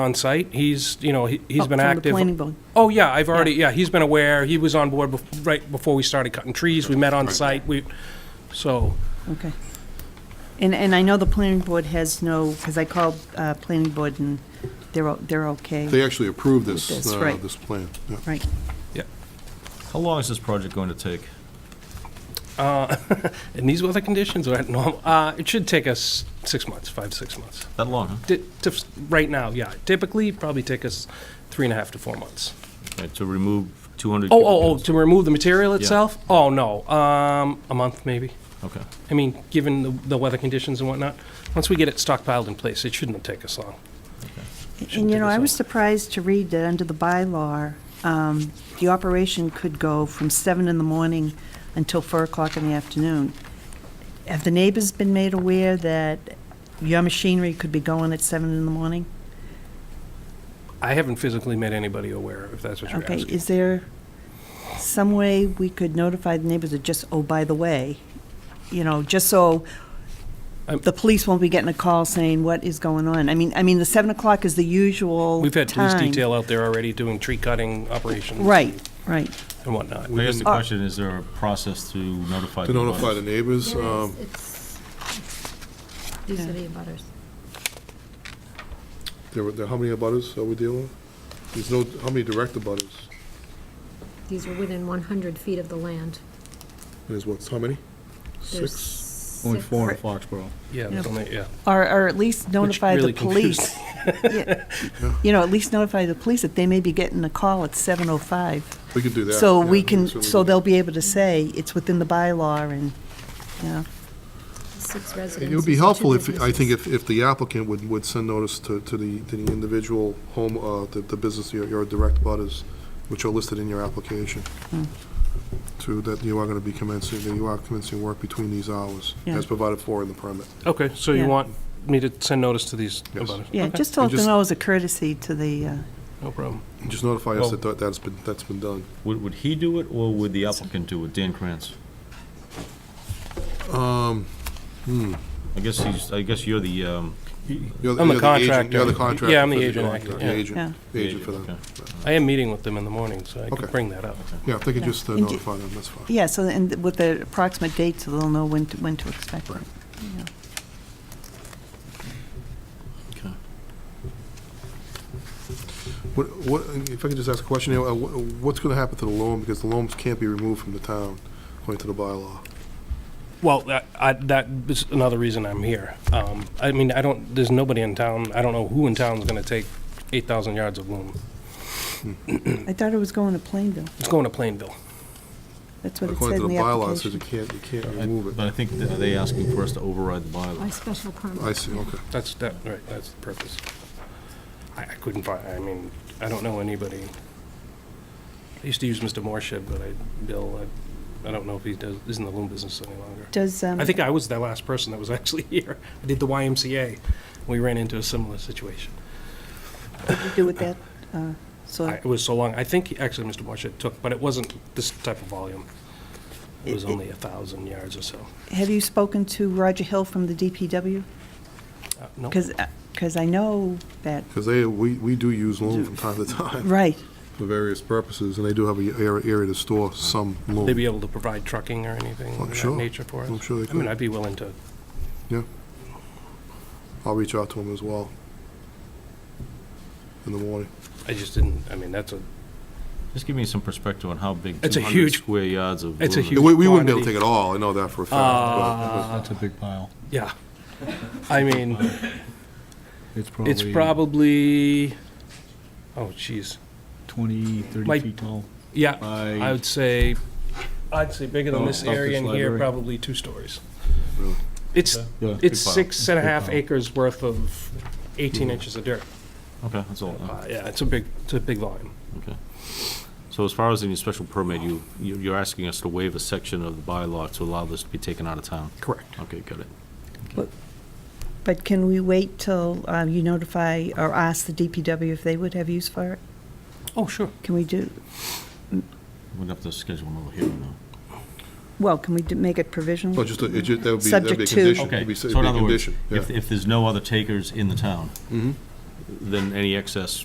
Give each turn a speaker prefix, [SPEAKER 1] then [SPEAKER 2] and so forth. [SPEAKER 1] on site. He's, you know, he- he's
[SPEAKER 2] Oh,
[SPEAKER 1] been
[SPEAKER 2] from the
[SPEAKER 1] active.
[SPEAKER 2] planning board.
[SPEAKER 1] Oh, yeah, I've already, yeah, he's been aware. He was on board bef- right before we started cutting trees. We met on site. We, so,
[SPEAKER 2] Okay. And, and I know the planning board has no, because I called uh, planning board and they're, o- they're okay.
[SPEAKER 3] They actually approved
[SPEAKER 2] With
[SPEAKER 3] this,
[SPEAKER 2] this,
[SPEAKER 3] uh,
[SPEAKER 2] right.
[SPEAKER 3] this plan. yeah.
[SPEAKER 2] Right.
[SPEAKER 1] yeah.
[SPEAKER 4] How long is this project going to take?
[SPEAKER 1] And these weather conditions are normal. Uh, It should take us six months, five, six months.
[SPEAKER 4] That long, huh?
[SPEAKER 1] Di- tif- Right now, yeah. Typically, probably take us three and a half to four months.
[SPEAKER 4] Okay, To remove 200?
[SPEAKER 1] Oh, oh, oh, to remove the material itself? Oh, no, um, a month maybe.
[SPEAKER 4] oh. Okay.
[SPEAKER 1] I mean, given the, the weather conditions and whatnot, once we get it stockpiled in place, it shouldn't take us long.
[SPEAKER 2] And you know, I
[SPEAKER 1] Shouldn't take us
[SPEAKER 2] was
[SPEAKER 1] long.
[SPEAKER 2] surprised to read that under the bylaw, um, the operation could go from seven in the morning until four o'clock in the afternoon. Have the neighbors been made aware that your machinery could be going at seven in the morning?
[SPEAKER 1] I haven't physically made anybody aware, if that's what you're
[SPEAKER 2] Okay,
[SPEAKER 1] asking.
[SPEAKER 2] is there some way we could notify the neighbors that just, oh, by the way, you know, just so
[SPEAKER 1] I'm-
[SPEAKER 2] the police won't be getting a call saying, what is going on? I mean, I mean, the 7 o'clock is the usual
[SPEAKER 1] We've had police
[SPEAKER 2] time.
[SPEAKER 1] detail out there already doing tree cutting operations.
[SPEAKER 2] Right, right.
[SPEAKER 1] And whatnot.
[SPEAKER 4] I guess the
[SPEAKER 2] Uh,
[SPEAKER 4] question, is there a process to notify?
[SPEAKER 3] To
[SPEAKER 4] the
[SPEAKER 3] notify the
[SPEAKER 4] abutters?
[SPEAKER 3] neighbors,
[SPEAKER 5] There
[SPEAKER 3] um,
[SPEAKER 5] is, it's, these are the abutters.
[SPEAKER 3] there were, there- how many abutters are we dealing with? There's no, how many direct abutters?
[SPEAKER 5] These are within 100 feet of the land.
[SPEAKER 3] There's what, how many?
[SPEAKER 5] There's
[SPEAKER 3] Six?
[SPEAKER 5] six.
[SPEAKER 6] Only four in Foxborough.
[SPEAKER 1] Yeah,
[SPEAKER 2] Yeah.
[SPEAKER 1] there's only- yeah.
[SPEAKER 2] Or, or at least notify the
[SPEAKER 1] really confused
[SPEAKER 2] police. Yeah. You know, at least notify the police that they may be getting a call at 7:05.
[SPEAKER 3] We could do that.
[SPEAKER 2] So
[SPEAKER 3] yeah,
[SPEAKER 2] we can,
[SPEAKER 3] certainly
[SPEAKER 2] so
[SPEAKER 3] do that.
[SPEAKER 2] they'll be able to say it's within the bylaw and, you know.
[SPEAKER 5] Six residences.
[SPEAKER 3] It would be helpful
[SPEAKER 5] two
[SPEAKER 3] if, I think
[SPEAKER 5] businesses.
[SPEAKER 3] if, if the applicant would, would send notice to, to the, to the individual home, uh, the, the business, your, your direct butters, which are listed in your application,
[SPEAKER 2] Hmm.
[SPEAKER 3] to, that you are gonna be commencing, that you are commencing work between these hours,
[SPEAKER 2] Yeah.
[SPEAKER 3] as provided for in the permit.
[SPEAKER 1] Okay, so you
[SPEAKER 2] Yeah.
[SPEAKER 1] want me to send notice to these
[SPEAKER 3] Yes.
[SPEAKER 1] abutters?
[SPEAKER 2] Yeah,
[SPEAKER 1] Okay,
[SPEAKER 2] just to let them
[SPEAKER 3] just-
[SPEAKER 2] know as a courtesy to the, uh,
[SPEAKER 1] No problem.
[SPEAKER 3] And Just notify us
[SPEAKER 4] Well-
[SPEAKER 3] that that's been, that's been done.
[SPEAKER 4] Would, would he do it, or would the applicant do it, Dan Krantz? I guess he's, I guess you're the, um,
[SPEAKER 3] You're
[SPEAKER 1] I'm the
[SPEAKER 3] you're agent- You're
[SPEAKER 1] contractor.
[SPEAKER 3] the contractor.
[SPEAKER 1] Yeah, I'm the
[SPEAKER 3] for
[SPEAKER 1] agent,
[SPEAKER 3] contractor,
[SPEAKER 1] yeah.
[SPEAKER 3] the Agent,
[SPEAKER 2] Yeah.
[SPEAKER 3] the agent for
[SPEAKER 4] Agent,
[SPEAKER 3] them.
[SPEAKER 1] I am meeting with them in the morning, so I could
[SPEAKER 3] Okay.
[SPEAKER 1] bring that up.
[SPEAKER 3] Yeah, if they could
[SPEAKER 2] Yeah.
[SPEAKER 3] just uh,
[SPEAKER 2] And do-
[SPEAKER 3] notify them, that's fine.
[SPEAKER 2] Yeah, so, and with the approximate date, so they'll know when to, when to expect it. Yeah.
[SPEAKER 4] okay.
[SPEAKER 3] What, what, if I could just ask a question, here, uh, wha- what's gonna happen to the loam, because the loams can't be removed from the town, according to the bylaw?
[SPEAKER 1] Well, that, I, that is another reason I'm here. Um, I mean, I don't, there's nobody in town, I don't know who in town's gonna take eight thousand yards of loom.
[SPEAKER 2] I thought it was going to Plainville.
[SPEAKER 1] It's going to Plainville.
[SPEAKER 2] That's what it said
[SPEAKER 3] According to
[SPEAKER 2] in
[SPEAKER 3] the
[SPEAKER 2] the
[SPEAKER 3] bylaw, it says you
[SPEAKER 2] application.
[SPEAKER 3] can't, you can't
[SPEAKER 4] I-
[SPEAKER 3] remove
[SPEAKER 4] But
[SPEAKER 3] it.
[SPEAKER 4] I think, that- are they asking for us to override the
[SPEAKER 5] By
[SPEAKER 4] bylaw?
[SPEAKER 5] special permit.
[SPEAKER 3] I see, okay.
[SPEAKER 1] That's, that, right, that's the purpose. I, I couldn't find, I mean, I don't know anybody. I used to use Mr. Morshed, but I, Bill, I, I don't know if he does, is in the loom business any longer.
[SPEAKER 2] Does, um,
[SPEAKER 1] I think I was the last person that was actually here. I did the YMCA. We ran into a similar situation.
[SPEAKER 2] what do you do with that? uh, So
[SPEAKER 1] I- It was so long, I think, actually, Mr. Marshall took, but it wasn't this type of volume. It was
[SPEAKER 2] It- it-
[SPEAKER 1] only a 1,000 yards or so.
[SPEAKER 2] have you spoken to Roger Hill from the DPW?
[SPEAKER 1] Uh, No,
[SPEAKER 2] Because, I know that,
[SPEAKER 3] Because they, we, we do use loam from time to time
[SPEAKER 2] right,
[SPEAKER 3] for various purposes, and they do have a area, area to store some loam.
[SPEAKER 1] they'd be able to provide trucking or anything
[SPEAKER 3] I'm
[SPEAKER 1] of that
[SPEAKER 3] sure.
[SPEAKER 1] nature for us.
[SPEAKER 3] I'm sure they
[SPEAKER 1] I mean,
[SPEAKER 3] could.
[SPEAKER 1] I'd be willing to,
[SPEAKER 3] Yeah. I'll reach out to them as well in the morning.
[SPEAKER 1] I just didn't, I mean, that's a,
[SPEAKER 4] Just give me some perspective on how big
[SPEAKER 1] It's a
[SPEAKER 4] 200
[SPEAKER 1] huge-
[SPEAKER 4] square yards of.
[SPEAKER 1] it's a
[SPEAKER 4] loom is.
[SPEAKER 1] huge-
[SPEAKER 3] We, we wouldn't be able to
[SPEAKER 1] quantity.
[SPEAKER 3] take it all, I know that for a fact.
[SPEAKER 6] That's a big pile.
[SPEAKER 1] yeah. I mean,
[SPEAKER 6] It's probably.
[SPEAKER 1] it's probably, oh, jeez.
[SPEAKER 6] 20, 30
[SPEAKER 1] like-
[SPEAKER 6] feet tall.
[SPEAKER 1] Yeah,
[SPEAKER 6] By-
[SPEAKER 1] I would say, I'd say bigger than
[SPEAKER 6] Oh,
[SPEAKER 1] this
[SPEAKER 6] Stockbridge
[SPEAKER 1] area in here,
[SPEAKER 6] Library.
[SPEAKER 1] probably two stories.
[SPEAKER 3] Really?
[SPEAKER 1] It's,
[SPEAKER 6] Yeah.
[SPEAKER 1] it's
[SPEAKER 4] Big pile.
[SPEAKER 1] six and a
[SPEAKER 6] Big
[SPEAKER 1] half
[SPEAKER 6] pile.
[SPEAKER 1] acres worth of 18 inches of dirt.
[SPEAKER 4] Okay, that's
[SPEAKER 6] Oh.
[SPEAKER 4] all.
[SPEAKER 1] Uh, Yeah, it's a big, it's a big volume.
[SPEAKER 4] Okay. So as far as any special permit, you, you- you're asking us to waive a section of the bylaw to allow this to be taken out of town?
[SPEAKER 1] Correct.
[SPEAKER 4] Okay, got it.
[SPEAKER 2] but can we wait till uh, you notify or ask the DPW if they would have use for it?
[SPEAKER 1] Oh, sure.
[SPEAKER 2] Can we do,
[SPEAKER 4] We'd have to schedule another hearing now.
[SPEAKER 2] well, can we do- make it provisional?
[SPEAKER 3] Well, just, a- it ju- that would be, that'd be a
[SPEAKER 2] Subject to-
[SPEAKER 3] condition. Mm-hmm. It'd
[SPEAKER 4] Okay,
[SPEAKER 3] be- it'd
[SPEAKER 4] so
[SPEAKER 3] be
[SPEAKER 4] in
[SPEAKER 3] a
[SPEAKER 4] other words,
[SPEAKER 3] condition, yeah.
[SPEAKER 4] if, if there's no other takers in the town, then any excess